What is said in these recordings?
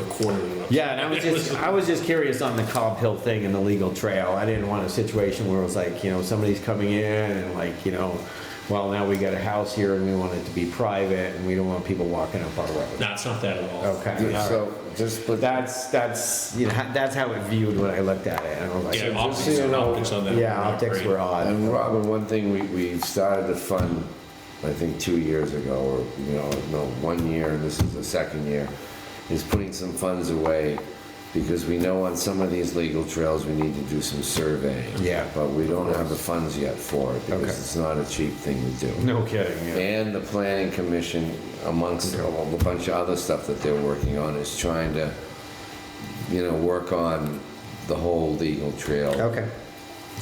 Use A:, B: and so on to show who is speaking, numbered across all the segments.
A: corner and up.
B: Yeah, and I was just, I was just curious on the Cobb Hill thing and the legal trail. I didn't want a situation where it was like, you know, somebody's coming in and like, you know, well, now we got a house here and we want it to be private and we don't want people walking up our road.
C: No, it's not that at all.
B: Okay, all right.
A: So just,
B: But
A: but that,
B: that's, that's, you know, that's how it viewed when I looked at it. And I was like,
C: Yeah,
A: just so
C: optics,
A: you know,
C: optics on that.
B: yeah,
C: are not
B: optics
C: great.
B: were odd.
A: and Robin, one thing we, we started to fund, I think, two years ago, or, you know, no, one year, and this is the second year, is putting some funds away, because we know on some of these legal trails, we need to do some surveying.
B: Yeah.
A: But we don't have the funds yet for it,
B: Okay.
A: because it's not a cheap thing to do.
B: No kidding, yeah.
A: And the planning commission, amongst a whole bunch of other stuff that they're working on, is trying to, you know, work on the whole legal trail
B: Okay,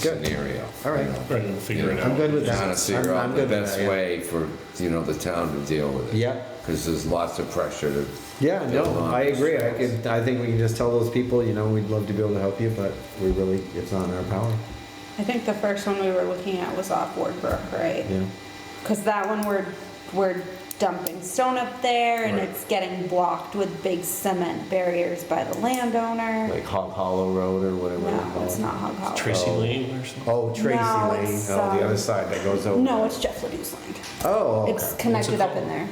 B: good.
A: scenario.
B: All right.
A: you know.
C: Right, we'll figure it
A: Yeah.
C: out.
B: I'm good with that.
A: Trying to figure
B: I'm- I'm
A: out the
B: good with
A: best
B: that, yeah.
A: way for, you know, the town to deal with it.
B: Yeah.
A: Because there's lots of pressure to.
B: Yeah, no,
A: build on
B: I
A: this.
B: agree. I could, I think we can just tell those people, you know, we'd love to be able to help you, but we really, it's not in our power.
D: I think the first one we were looking at was off Ward Brook, right?
B: Yeah.
D: Because that one we're, we're dumping stone up there and
C: Right.
D: it's getting blocked with big cement barriers by the landowner.
B: Like Hog Hollow Road or whatever. they
D: No,
B: call
D: it's
B: it.
D: not Hog Hollow.
C: Tracy Lane or something?
B: Oh, Tracy
D: No,
B: Lane,
D: it's,
B: oh, the other
D: um,
B: side that goes over.
D: No, it's Jeff Liddy's land.
B: Oh, okay.
D: It's connected up
C: called?
D: in there.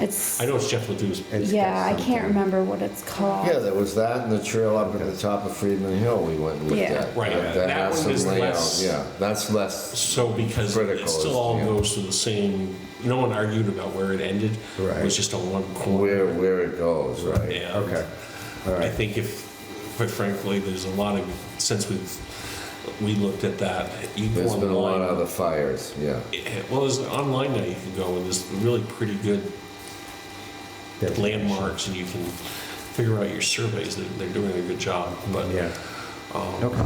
D: It's,
C: I know it's Jeff Ledoux.
B: It's
D: yeah, I
B: got
D: can't
B: something.
D: remember what it's called.
A: Yeah, there was that and the trail up at the top of Friedman Hill, we went and looked
D: Yeah.
A: at.
C: Right, that
A: has
C: one
A: some
C: is
A: layout,
C: less-
A: Yeah, that's less,
C: So because
A: Critical
C: it
A: is-
C: still all
A: yeah.
C: goes to the same, no one argued about where it ended. It
B: Right.
C: was just a one
A: where,
C: corner.
A: where it goes, right?
C: And
B: Okay, all
C: I
B: right.
C: think if, quite frankly, there's a lot of, since we've, we looked at that, you go
A: There's been a lot of
C: online.
A: other fires, yeah.
C: eh, Well, there's an online now you can go and there's really pretty good
B: Yeah.
C: landmarks and you can figure out your surveys. They- They're doing a good job, but
B: Yeah,
C: um,
B: okay,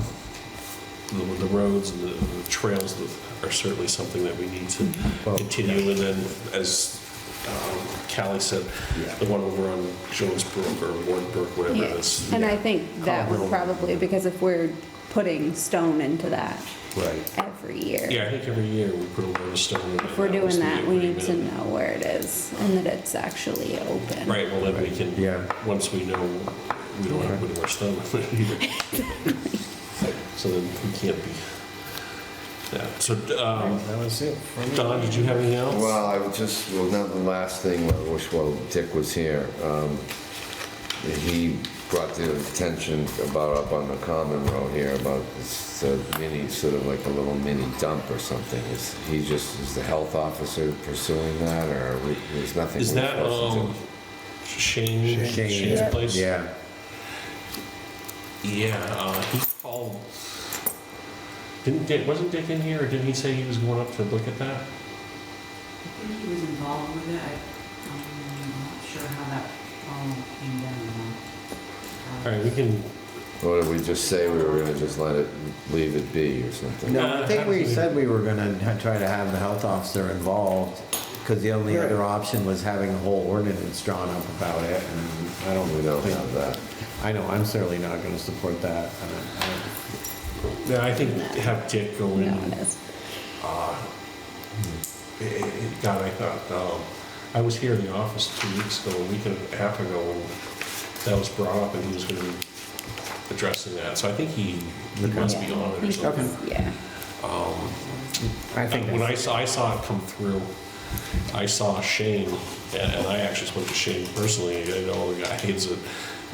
C: the, the roads and the the trails are certainly something that we need to
B: Mm-hmm. Well,
C: continue. And then, as um, Callie said,
B: Yeah.
C: the one over on Jones Brook or Ward Brook, whatever it is.
D: And I think that would
C: Colorado.
D: probably, because if we're putting stone into that
B: right.
D: every year.
C: Yeah, I think every year we put a load of stone in.
D: If we're doing that, we need to
C: know.
D: know where it is and that it's actually open.
C: Right, well, then we can,
B: Yeah.
C: once we know, we don't have to put more stone on it either. So then we can't be, yeah, so, um,
B: That was it. for me.
C: Don, did you have anything else?
A: Well, I would just, well, now the last thing, I wish while Dick was here, um, he brought the attention about up on the common road here, about this uh, mini, sort of like a little mini dump or something. Is he just, is the health officer pursuing that, or we- there's nothing?
C: Is
A: we're
C: that,
A: supposed to do?
C: um, Shane,
B: Shane,
C: Shane's
B: yeah.
C: place?
B: Yeah,
C: Yeah, uh, he called. Didn't Dick, wasn't Dick in here, or didn't he say he was going up to look at that?
E: I think he was involved with it. I, I'm not sure how that all came down.
C: All right, we can,
A: Or did we just say we were gonna just let it, leave it be or something?
B: no, I think we said we were gonna ha- try to have the health officer involved, because the only
A: Right.
B: other option was having a whole ordinance drawn up about it, and I don't
A: We don't
B: think-
A: have that.
B: I know, I'm certainly not gonna support that. I don't- I don't-
C: no, I think have Dick go in.
D: No, it is.
C: Eh, eh, eh, God, I thought, um, I was here in the office two weeks ago, a week and a half ago, and that was brought up, and he was gonna be addressing that, so I think he, he
B: Okay.
C: must be on it or
D: He's-
C: something.
D: Yeah.
B: I think
C: when I
B: that's-
C: saw, I saw it come through, I saw Shane, and, and I actually spoke to Shane personally. I know the guy is a,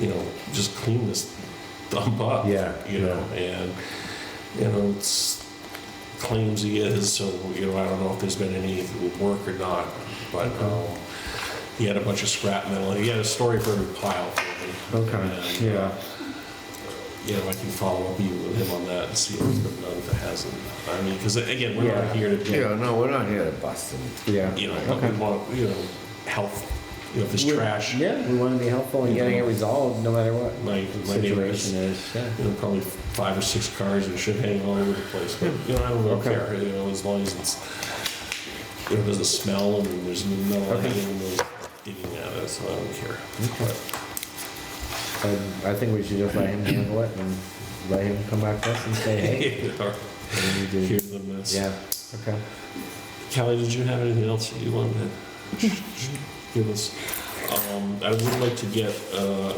C: you know, just clean this dump up.
B: Yeah,
C: You know, and you know, it's claims he is. So you know, I don't know if there's been any work or not, but um, he had a bunch of scrap metal. He had a story for every pile.
B: Okay,
C: And, uh,
B: yeah,
C: you know, I can follow up you with him on that and see if it's been done, if it hasn't. I mean, because again, we're
B: Yeah.
C: not here to do
A: Yeah, no, we're not here to bust him.
B: yeah.
C: you know,
B: Okay.
C: we want, you know, health, you know, if there's
B: We-
C: trash, my,
B: Yeah, we want to be helpful in getting it resolved, no matter what
C: my
B: the
C: neighbor has,
B: situation is. Yeah.
C: you know, probably five or six cars and shit hanging all over the place, but, you know, I don't really
B: Hmm. Okay.
C: care, you know, as long as it's, you know, it doesn't smell and there's no
B: Okay.
C: hanging, no eating at it, so I don't care. But,
B: I, I think we should just let him handle it and let him come back to us and say, hey.
C: you know,
B: what do we do?
C: Here's the mess.
B: Yeah, okay.
C: Kelly, did you have anything else that you wanted to give us? Um, I would like to get, uh,